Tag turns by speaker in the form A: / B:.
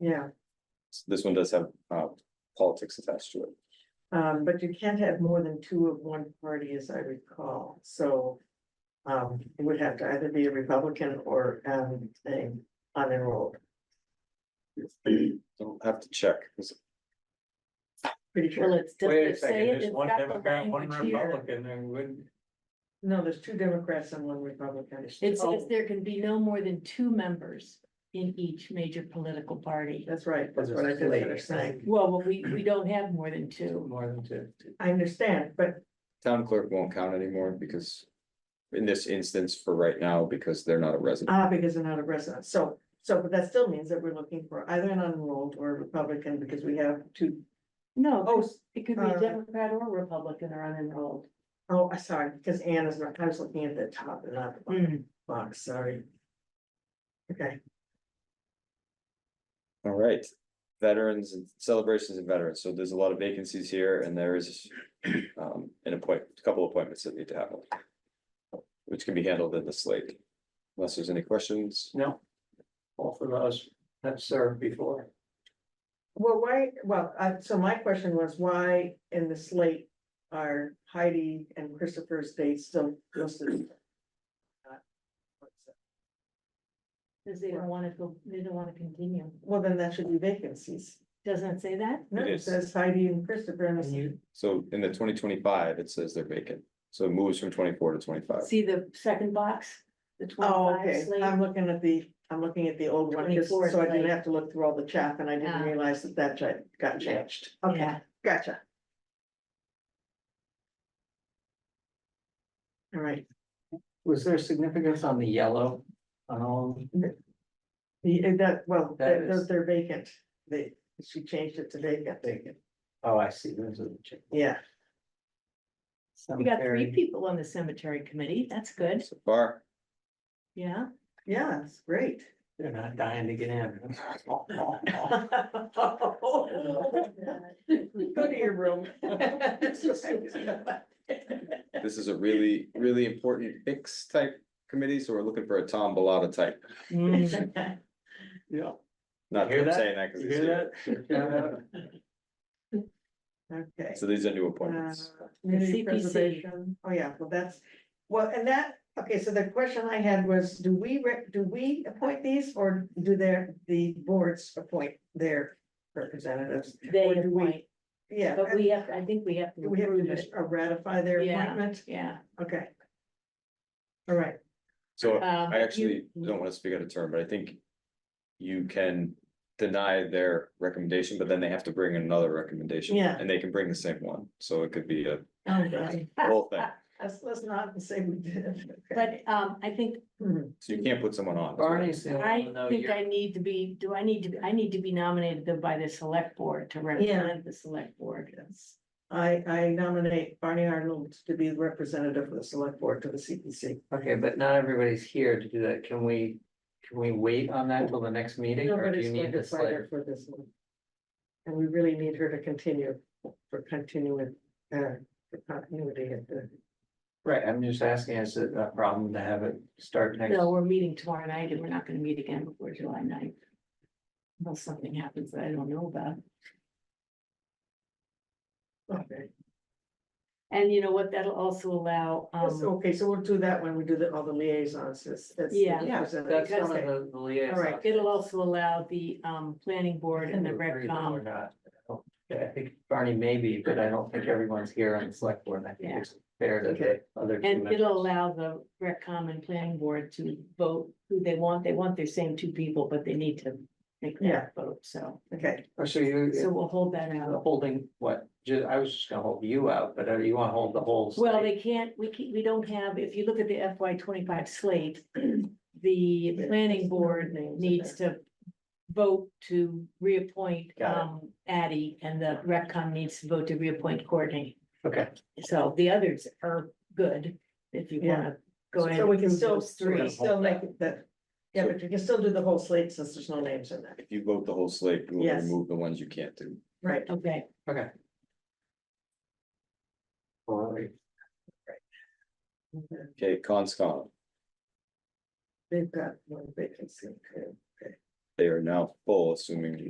A: yeah,
B: This one does have uh politics attached to it.
A: um, but you can't have more than two of one party, as I recall, so. Um, it would have to either be a Republican or, um, a unenrolled,
B: Don't have to check.
A: pretty
C: Well,
A: sure.
C: it's, does
D: Wait a
C: it say
D: second,
C: it?
D: there's
C: It's
D: one
C: got the
D: Democrat, one
C: language here.
D: Republican, then would,
A: No, there's two Democrats and one Republican.
C: It
A: Oh,
C: says there can be no more than two members in each major political party.
A: That's right, that's what I
D: There's a
A: feel like
D: split.
A: you're saying,
C: Well, but we, we don't have more than two.
D: more than two.
A: I understand, but
B: Town clerk won't count anymore because. In this instance for right now, because they're not a resident.
A: Ah, because they're not a resident, so, so, but that still means that we're looking for either an unenrolled or a Republican, because we have two.
C: No,
A: Oh,
C: it
A: s-
C: could be
A: uh,
C: Democrat or Republican or unenrolled.
A: oh, I sorry, because Ann is not, I was looking at the top and not the bottom
C: Mm.
A: box, sorry. Okay,
B: All right, veterans and celebrations and veterans. So there's a lot of vacancies here and there is. Um, an appoint, a couple appointments that need to happen. Which can be handled in the slate. Unless there's any questions.
D: No. Both of us have served before.
A: well, why, well, uh, so my question was, why in the slate are Heidi and Christopher's dates still listed? Uh, what's that?
C: Cause they don't wanna go, they don't wanna continue.
A: Well, then that should be vacancies,
C: Doesn't it say that?
A: no,
B: It
A: it
B: is.
A: says Heidi and Christopher, and
D: And
A: it's-
D: you,
B: So in the twenty twenty-five, it says they're vacant. So it moves from twenty-four to twenty-five.
C: See the second box? The
A: Oh,
C: twenty-five
A: okay,
C: slate?
A: I'm looking at the, I'm looking at the old one, just
C: 24
A: so I didn't
C: slate.
A: have to look through all the chat, and I didn't
C: Ah.
A: realize that that cha- got changed. Okay,
C: Yeah.
A: gotcha. All right,
D: was there significance on the yellow Um, on all?
A: the, eh, that, well,
D: That
A: they're,
D: is-
A: they're vacant, they, she changed it to vacant,
D: Vacant. Oh, I see, those are the chick.
A: yeah,
C: We got three people on the cemetery committee. That's good.
B: So far,
C: Yeah.
A: yeah, it's great.
D: They're not dying to get in.
A: Go to your room.
B: this is a really, really important fix type committee, so we're looking for a Tom Bellata type.
D: Yeah.
B: Not
D: You
B: that
D: hear
B: I'm
D: that?
B: saying that because
D: You
B: he's here.
D: hear that?
A: Okay.
B: So these are new appointments.
A: Uh, Community
C: CPC.
A: preservation, oh yeah, well, that's, well, and that, okay, so the question I had was, do we, rec- do we appoint these or do their, the boards appoint their representatives?
C: They
A: Or do we-
C: appoint,
A: Yeah.
C: but we have, I think we have to
A: Do we have to
C: approve
A: just
C: it.
A: uh, ratify their
C: Yeah.
A: appointment?
C: Yeah.
A: Okay. All right,
B: So
A: uh,
C: Um,
B: I
C: you-
B: actually don't want to speak out of turn, but I think you can deny their recommendation, but then they have to bring another recommendation.
A: Yeah.
B: And they can bring the same one, so it could be a
C: Oh, God.
A: Ah,
B: whole thing.
A: let's, let's not say we did. Okay.
C: But um, I think,
A: Hmm,
B: So you can't put someone on.
D: Barney's the only
C: I
D: one though.
C: think
D: "Oh, you're-
C: I need to be, do I need to, be- I need to be nominated then by the select board to represent the select board.
A: yes. I, I nominate Barney Arnold to be the representative of the select board to the CPC.
D: Okay, but not everybody's here to do that. Can we, can we wait on that till the next meeting or do
A: Nobody's
D: you
A: going
D: need
A: to
D: this
A: fight
D: later?
A: her for this one. And we really need her to continue, for continuing, uh, for continuity at the,
D: Right, I'm just asking, is it a problem to have it start next?
C: No, we're meeting tomorrow night and we're not gonna meet again before July 9th. Unless something happens that I don't know about.
A: okay,
C: And you know what? That'll also allow,
A: Yes,
C: um,
A: okay, so we'll do that when we do the, all the liaisons, that's, that's.
C: Yeah.
D: Yeah,
A: representative.
D: that's one of
A: Okay.
D: the- the liaison.
A: All right,
C: it'll also allow the um, planning board and the
D: Agree that we're
C: RecCom.
D: not- I don't- I think Barney maybe, but I don't think everyone's here on the select board. and I think
C: Yeah.
D: it's fair to the
A: Okay.
D: other. two
C: And it'll
D: members.
C: allow the RecCom and planning board to vote who they want. They want their same two people, but they need to make
A: Yeah.
C: that vote, so.
A: Okay,
D: Oh, So you,
C: So we'll hold that
D: you're
C: out.
D: holding what? Ju- I was just gonna hold you out, but uh, you wanna hold the whole.
C: Well,
D: slate?
C: they can't, we can, we don't have, if you look at the FY twenty-five slate, the planning board needs to vote to reappoint
D: Got it.
C: um Addie and the RecCom needs to vote to reappoint Courtney.
D: Okay,
C: So the others are good if you wanna go ahead.
A: so we
C: and
A: can
C: approve
A: still,
C: those
A: we can
C: Three.
A: still make it that, yeah, but you can still do the whole slate since there's no names in there,
B: If you vote the whole slate, we'll
A: Yes.
B: remove the ones you can't do.
A: right?
C: Okay,
D: okay. All right.
B: Okay, conscom,
A: They've got one vacancy, okay.
B: they are now full, assuming